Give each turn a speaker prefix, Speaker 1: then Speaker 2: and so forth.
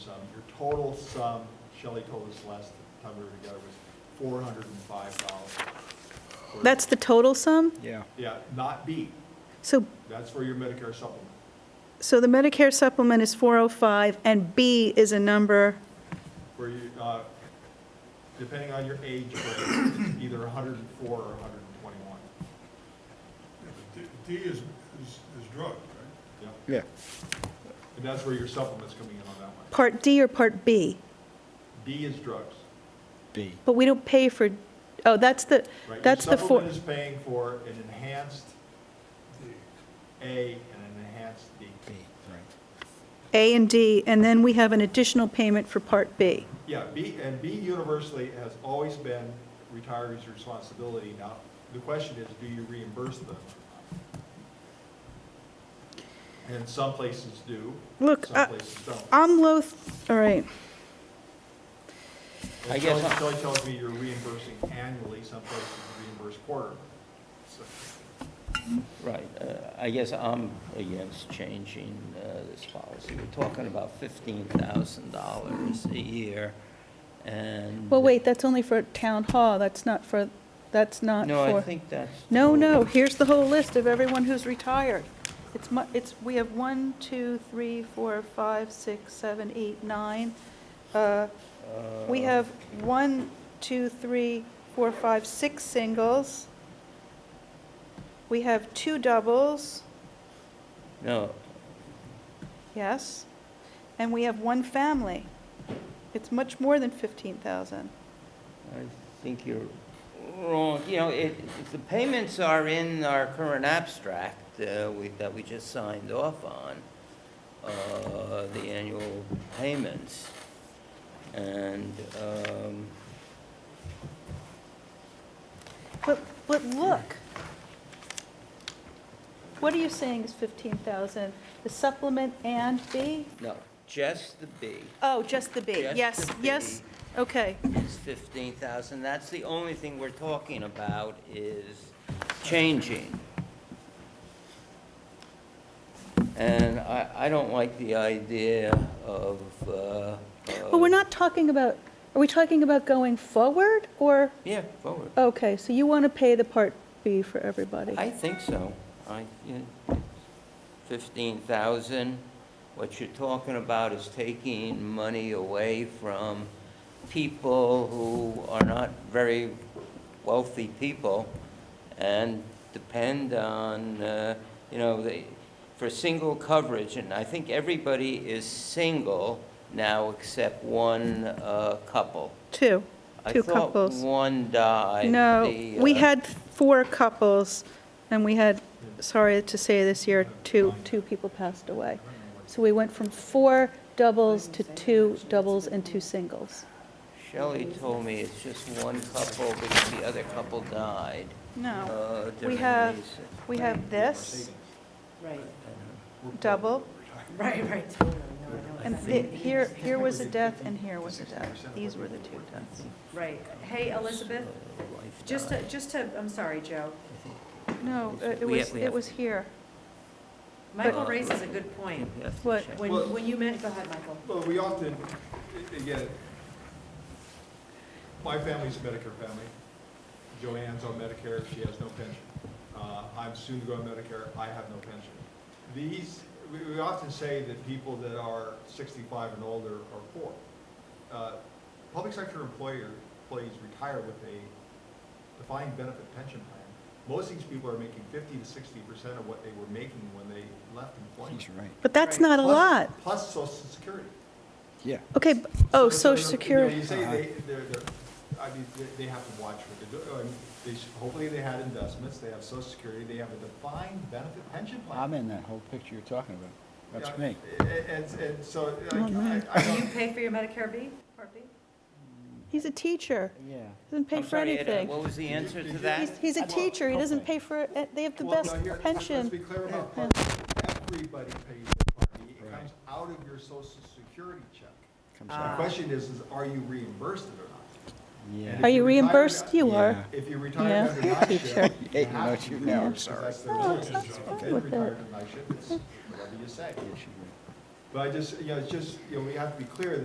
Speaker 1: your total sum, Shelley told us last time we were together, was four hundred and five dollars.
Speaker 2: That's the total sum?
Speaker 3: Yeah.
Speaker 1: Yeah, not B,
Speaker 2: So,
Speaker 1: that's for your Medicare supplement.
Speaker 2: so the Medicare supplement is 405, and B is a number,
Speaker 1: where you, uh, depending on your age, grade, either 104 or 121.
Speaker 4: D D is, is is drug, right?
Speaker 1: Yeah,
Speaker 3: Yeah.
Speaker 1: And that's where your supplement's coming in on that one.
Speaker 2: Part D or Part B?
Speaker 1: B is drugs,
Speaker 3: B.
Speaker 2: But we don't pay for, oh, that's the,
Speaker 1: right?
Speaker 2: that's the
Speaker 1: Your
Speaker 2: four,
Speaker 1: supplement is paying for an enhanced A and an enhanced D.
Speaker 3: B, right.
Speaker 2: A and D, and then we have an additional payment for Part B.
Speaker 1: Yeah, B, and B universally has always been retirees' responsibility. Now, the question is, do you reimburse them? And some places do,
Speaker 2: Look,
Speaker 1: some
Speaker 2: Uh, I-
Speaker 1: places don't.
Speaker 2: I'm loath, all right,
Speaker 3: I
Speaker 1: And
Speaker 3: guess
Speaker 1: Shelley
Speaker 3: not.
Speaker 1: Shelley tells me you're reimbursing annually, some places you reimburse quarterly. So,
Speaker 3: Right. Uh, I guess I'm against changing uh, this policy. We're talking about $15,000 a year, and...
Speaker 2: well, wait, that's only for town hall, that's not for, that's not for.
Speaker 3: No, I think that's...
Speaker 2: No, no, here's the whole list of everyone who's retired. It's mu, it's, we have one, two, three, four, five, six, seven, eight, nine. Uh,
Speaker 3: Uh,
Speaker 2: We have one, two, three, four, five, six singles. We have two doubles,
Speaker 3: No,
Speaker 2: yes, and we have one family. It's much more than fifteen thousand.
Speaker 3: I think you're wrong. You know, it, it- the payments are in our current abstract uh, we- that we just signed off on, uh, the annual payments. And, um,
Speaker 2: But, but look. What are you saying is fifteen thousand? The supplement and B?
Speaker 3: no, just the B
Speaker 2: Oh, just the B,
Speaker 3: Just
Speaker 2: yes,
Speaker 3: the B.
Speaker 2: yes, okay.
Speaker 3: is 15,000. That's the only thing we're talking about is changing. And I, I don't like the idea of, uh.
Speaker 2: But we're
Speaker 3: of-
Speaker 2: not talking about, are we talking about going forward, or,
Speaker 3: Yeah, forward.
Speaker 2: okay, so you want to pay the Part B for everybody?
Speaker 3: I think so. I, you fifteen thousand, what you're talking about is taking money away from people who are not very wealthy people and depend on, uh, you know, they, for single coverage, and I think everybody is single now except one, uh, couple.
Speaker 2: Two, two
Speaker 3: I
Speaker 2: couples.
Speaker 3: thought one died.
Speaker 2: No,
Speaker 3: The,
Speaker 2: we
Speaker 3: uh,
Speaker 2: had four couples, and we had, sorry to say this year, two, two people passed away. So we went from four doubles to two doubles and two singles.
Speaker 3: Shelley told me it's just one couple because the other couple died. uh,
Speaker 2: We
Speaker 3: different
Speaker 2: have,
Speaker 3: reason.
Speaker 2: we have this,
Speaker 1: savings.
Speaker 5: Right,
Speaker 3: uh,
Speaker 2: double,
Speaker 5: right, right. totally, no, I know
Speaker 2: and
Speaker 5: exactly.
Speaker 2: thi- here, here was a death, and here was a death. These were the two deaths.
Speaker 5: Right. Hey, Elizabeth,
Speaker 3: Life
Speaker 5: just to,
Speaker 3: died.
Speaker 5: just to, I'm sorry, Joe.
Speaker 2: No, uh, it
Speaker 3: We
Speaker 2: was,
Speaker 3: have- we
Speaker 2: it
Speaker 3: have-
Speaker 2: was here.
Speaker 5: Michael
Speaker 3: But-
Speaker 5: raises a good point.
Speaker 3: You have to
Speaker 2: What?
Speaker 3: check.
Speaker 5: When,
Speaker 1: Well-
Speaker 5: when you meant, go ahead, Michael.
Speaker 1: Well, we often, a- again, my family's a Medicare family. Joanne's on Medicare, she has no pension. Uh, I'm soon to go on Medicare, I have no pension. These, we, we often say that people that are sixty-five and older are poor. Uh, Public sector employer, employees retire with a defined benefit pension plan. Most of these people are making fifty to sixty percent of what they were making when they left employment.
Speaker 3: He's right,
Speaker 2: But that's
Speaker 5: Right.
Speaker 2: not a
Speaker 1: Plus-
Speaker 2: lot.
Speaker 1: Plus social security.
Speaker 3: yeah.
Speaker 2: Okay, b- oh,
Speaker 1: So,
Speaker 2: social
Speaker 1: you know,
Speaker 2: security.
Speaker 1: You say they, they're, they're, I mean, they- they have to watch what they do. I mean, They, should- hopefully they had investments, they have social security, they have a defined benefit pension plan.
Speaker 6: I'm in that whole picture you're talking about. That's
Speaker 1: Yeah,
Speaker 6: me.
Speaker 1: a- a- And, and so, I,
Speaker 2: Well, no.
Speaker 1: I, I
Speaker 5: Do you
Speaker 1: don't,
Speaker 5: pay for your Medicare B, Part B?
Speaker 2: He's a teacher.
Speaker 6: Yeah.
Speaker 2: Doesn't pay
Speaker 3: I'm
Speaker 2: for
Speaker 3: sorry, Ed, uh,
Speaker 2: anything.
Speaker 3: What was the
Speaker 1: Did you-
Speaker 3: answer
Speaker 1: did
Speaker 3: to
Speaker 1: you-
Speaker 3: that?
Speaker 2: He's, he's a
Speaker 6: Well,
Speaker 2: teacher. He doesn't
Speaker 6: okay.
Speaker 2: pay for, uh, they have the
Speaker 1: well,
Speaker 2: best
Speaker 1: no, here, let's let's be
Speaker 2: pension.
Speaker 1: clear about
Speaker 2: Yeah.
Speaker 1: Part B. Everybody pays their Part B. It
Speaker 6: Right.
Speaker 1: comes out of your social security check.
Speaker 6: Comes
Speaker 1: The
Speaker 5: Ah.
Speaker 6: out.
Speaker 1: question is, is are you reimbursed it or not?
Speaker 6: Yeah.
Speaker 1: if
Speaker 2: Are you
Speaker 1: you retire-
Speaker 2: reimbursed? You are.
Speaker 6: Yeah.
Speaker 1: If you
Speaker 2: Yeah.
Speaker 1: retire under night shift.
Speaker 6: You hate
Speaker 1: have
Speaker 6: what
Speaker 1: to
Speaker 6: you
Speaker 1: do
Speaker 6: know,
Speaker 1: it
Speaker 6: I'm
Speaker 1: because
Speaker 6: sorry.
Speaker 1: that's their
Speaker 2: No,
Speaker 1: religion.
Speaker 2: Oh, that's fine
Speaker 1: If you
Speaker 2: with
Speaker 1: retire
Speaker 2: it.
Speaker 1: under night shift, it's whatever you say.
Speaker 6: Yeah, she-
Speaker 1: But I just, you know, it's just, you know, we have to be clear that